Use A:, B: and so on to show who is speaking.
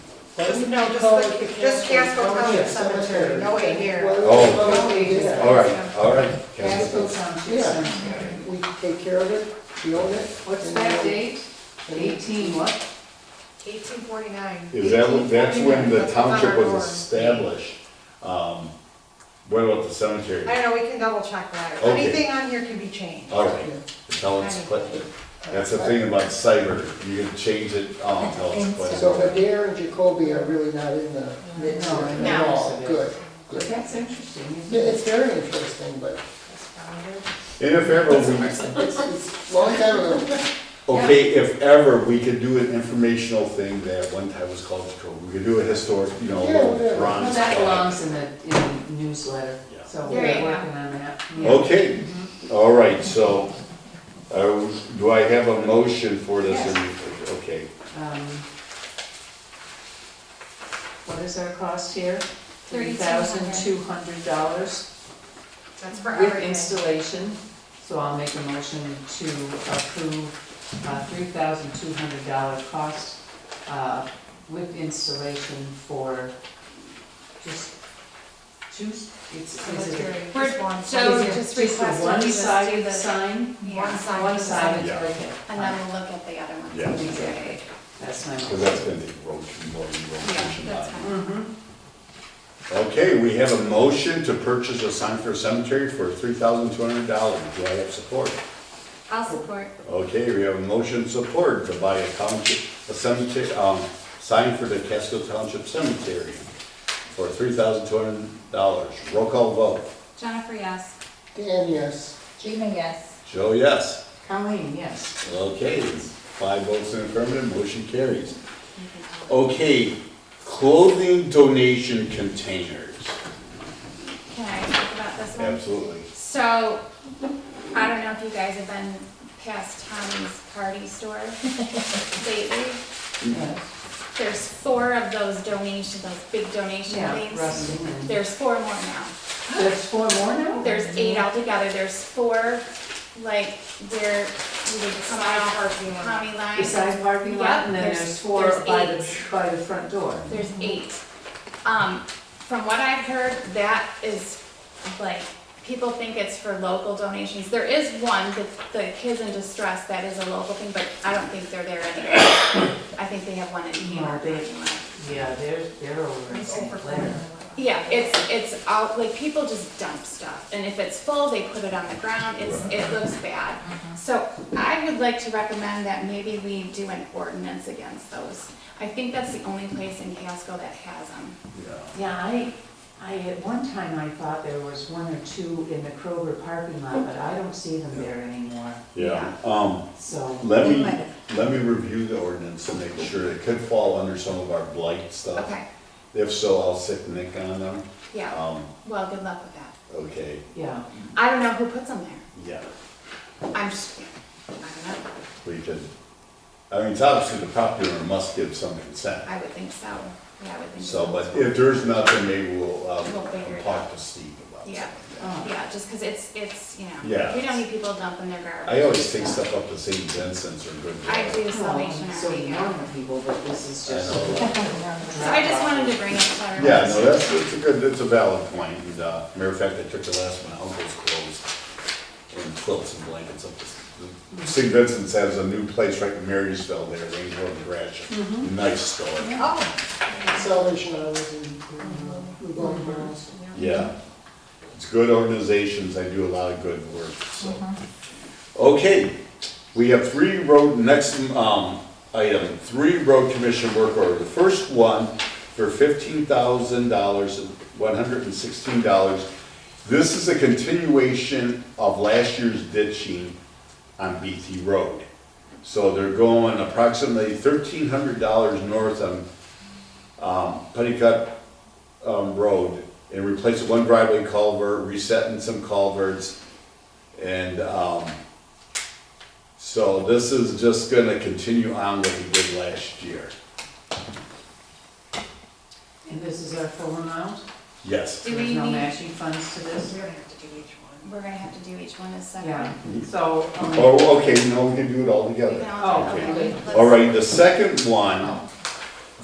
A: Just-
B: No, just
A: Code, the
B: the- just
A: Casco
B: Casco
A: County
B: County Cemetery, no way near.
C: Oh.
A: Well, we did that.
C: All right, all right.
A: Casco Township
D: Yeah.
A: Cemetery, we take care of it, we own it.
D: What's
A: and
D: that
A: we-
D: date?
A: and we-
D: Eighteen what?
B: Eighteen forty-nine.
E: Is that, when- that's when the
B: That's on our
E: township was
B: norm.
E: established? Um, What about the cemetery?
B: I don't know, we can double check that.
E: Okay. Uh,
B: Anything on here can be changed.
E: All right, until it's collected. That's the thing about cyber, you can change it, um, until it's
A: So
E: collected.
A: Adair and Jacoby are really not in the mix
D: No,
A: here at
F: no.
A: all, good.
D: But that's interesting, isn't
A: Yeah,
D: it?
A: It's very interesting, but
B: That's fine.
E: And if ever, we,
A: it's, it's a long time ago.
E: okay, if ever, we could do an informational thing that one time was called Jacob. We could do a historic, you know,
A: Yeah,
E: little
A: whatever.
E: bronze.
D: Well, that
E: plaque.
D: belongs in the, in the newsletter,
E: Yeah.
D: so
F: There
D: we're
F: you go.
D: working on that. Yeah.
E: Okay, all right, so, uh, do I have a motion for this? Okay,
D: Um, What is our cost here? Three thousand two hundred dollars
B: That's for
D: with
B: everything.
D: installation. So I'll make a motion to approve uh three thousand two hundred dollar cost uh, with installation for just, juice, it's, is it?
B: Cemetery, just one.
F: So
D: is it
F: just
D: a
F: request them to just do
D: One-sided
F: the-
D: sign?
B: One
F: Yeah,
B: side.
D: One sided,
E: Yeah.
D: okay.
F: and then we'll look at the other ones.
E: Yeah.
D: Exactly. That's my
E: because
D: motion.
E: that's been the road, more
F: Yeah,
E: rotation.
F: that's fine.
D: Mhm.
E: Okay, we have a motion to purchase a sign for a cemetery for three thousand two hundred dollars. Do I have support?
F: I'll support.
E: Okay, we have a motion support to buy a township, a cemetery, um, sign for the Casco Township Cemetery for three thousand two hundred dollars. Roll call vote.
F: Jennifer, yes.
A: Dan, yes.
F: Gina, yes.
E: Joe, yes.
D: Colleen, yes.
E: Okay, five votes in affirmative, motion carries. Okay, clothing donation containers.
F: Can I talk about this one?
E: Absolutely.
F: So, I don't know if you guys have been past Tommy's Party Store lately.
E: Mm-hmm.
F: There's four of those donation, those big donation
D: Yeah,
F: things.
D: Rustin and.
F: There's four more now.
D: There's four more now?
F: There's eight altogether. There's four, like, where you would come out of
B: Parking lot.
F: Tommy line.
D: Beside parking lot, and then
F: Yep,
D: there's
F: there's-
D: four
F: there's
D: by the,
F: eight.
D: by the front door.
F: There's eight. Um, from what I've heard, that is like, people think it's for local donations. There is one, the, the Kids in Distress, that is a local thing, but I don't think they're there anymore. I think they have one in
D: No,
F: Hammond.
D: they- Yeah, they're, they're over in
B: It's over
D: St.
B: for
D: Clair.
F: Yeah, it's, it's all, like, people just dump stuff, and if it's full, they put it on the ground, it's, it looks bad. So I would like to recommend that maybe we do an ordinance against those. I think that's the only place in Casco that has them.
E: Yeah.
D: Yeah, I, I, at one time I thought there was one or two in the Kroger parking lot, but I don't see them there anymore,
E: Yeah, um,
D: so.
E: Let me,
D: They might have-
E: let me review the ordinance and make sure it could fall under some of our blight stuff.
F: Okay,
E: If so, I'll sit Nick on them.
F: yeah,
E: Um,
F: well, good luck with that.
E: okay,
D: Yeah,
F: I don't know who puts them there.
E: yeah,
F: I'm just, I don't know,
E: we could, I mean, it's obviously the property owner must give some consent.
F: I would think so, yeah, I would think so.
E: So, but if there's nothing, maybe we'll, um,
F: We'll figure it
E: talk to Steve about
F: Yeah.
E: something.
D: oh,
F: Yeah, just because it's, it's, you know,
E: Yeah.
F: we don't need people dumping their garbage.
E: I always take stuff up to St. Vincent's or Good.
F: I do Salvation
D: well, so
F: Army,
D: you
F: yeah.
D: know the people, but this is
E: I
D: just.
E: know.
F: So I just wanted to bring it to everyone's.
E: Yeah, no, that's, it's a good, it's a valid point, and, uh, matter of fact, I took the last one, uncle's clothes and quilts and blankets up to, St. Vincent's has a new place right in Marysville there, Range Road and Gratiot, nice store,
B: Oh.
A: Salvation Army and, uh, Revolving Doors.
E: yeah. It's good organizations, they do a lot of good work, so. Okay, we have three road, next, um, item, three road commission work order. The first one for fifteen thousand dollars, one hundred and sixteen dollars. This is a continuation of last year's ditching on BT Road. So they're going approximately thirteen hundred dollars north on, um, Putticut, um, Road and replacing one driveway culvert, resetting some culverts. And, um, so this is just gonna continue on what we did last year.
D: And this is our full amount?
E: Yes.
F: Do we
D: There's no
F: need,
D: matching funds to
B: We're
D: this?
B: gonna have to do each one.
F: we're gonna have to do each one as
D: Yeah,
F: separate.
D: so, um,
E: Oh, okay, no, we can do it all
F: We
E: together.
F: can all-
D: Oh,
F: okay,
D: okay.
F: let's-
E: All right, the second one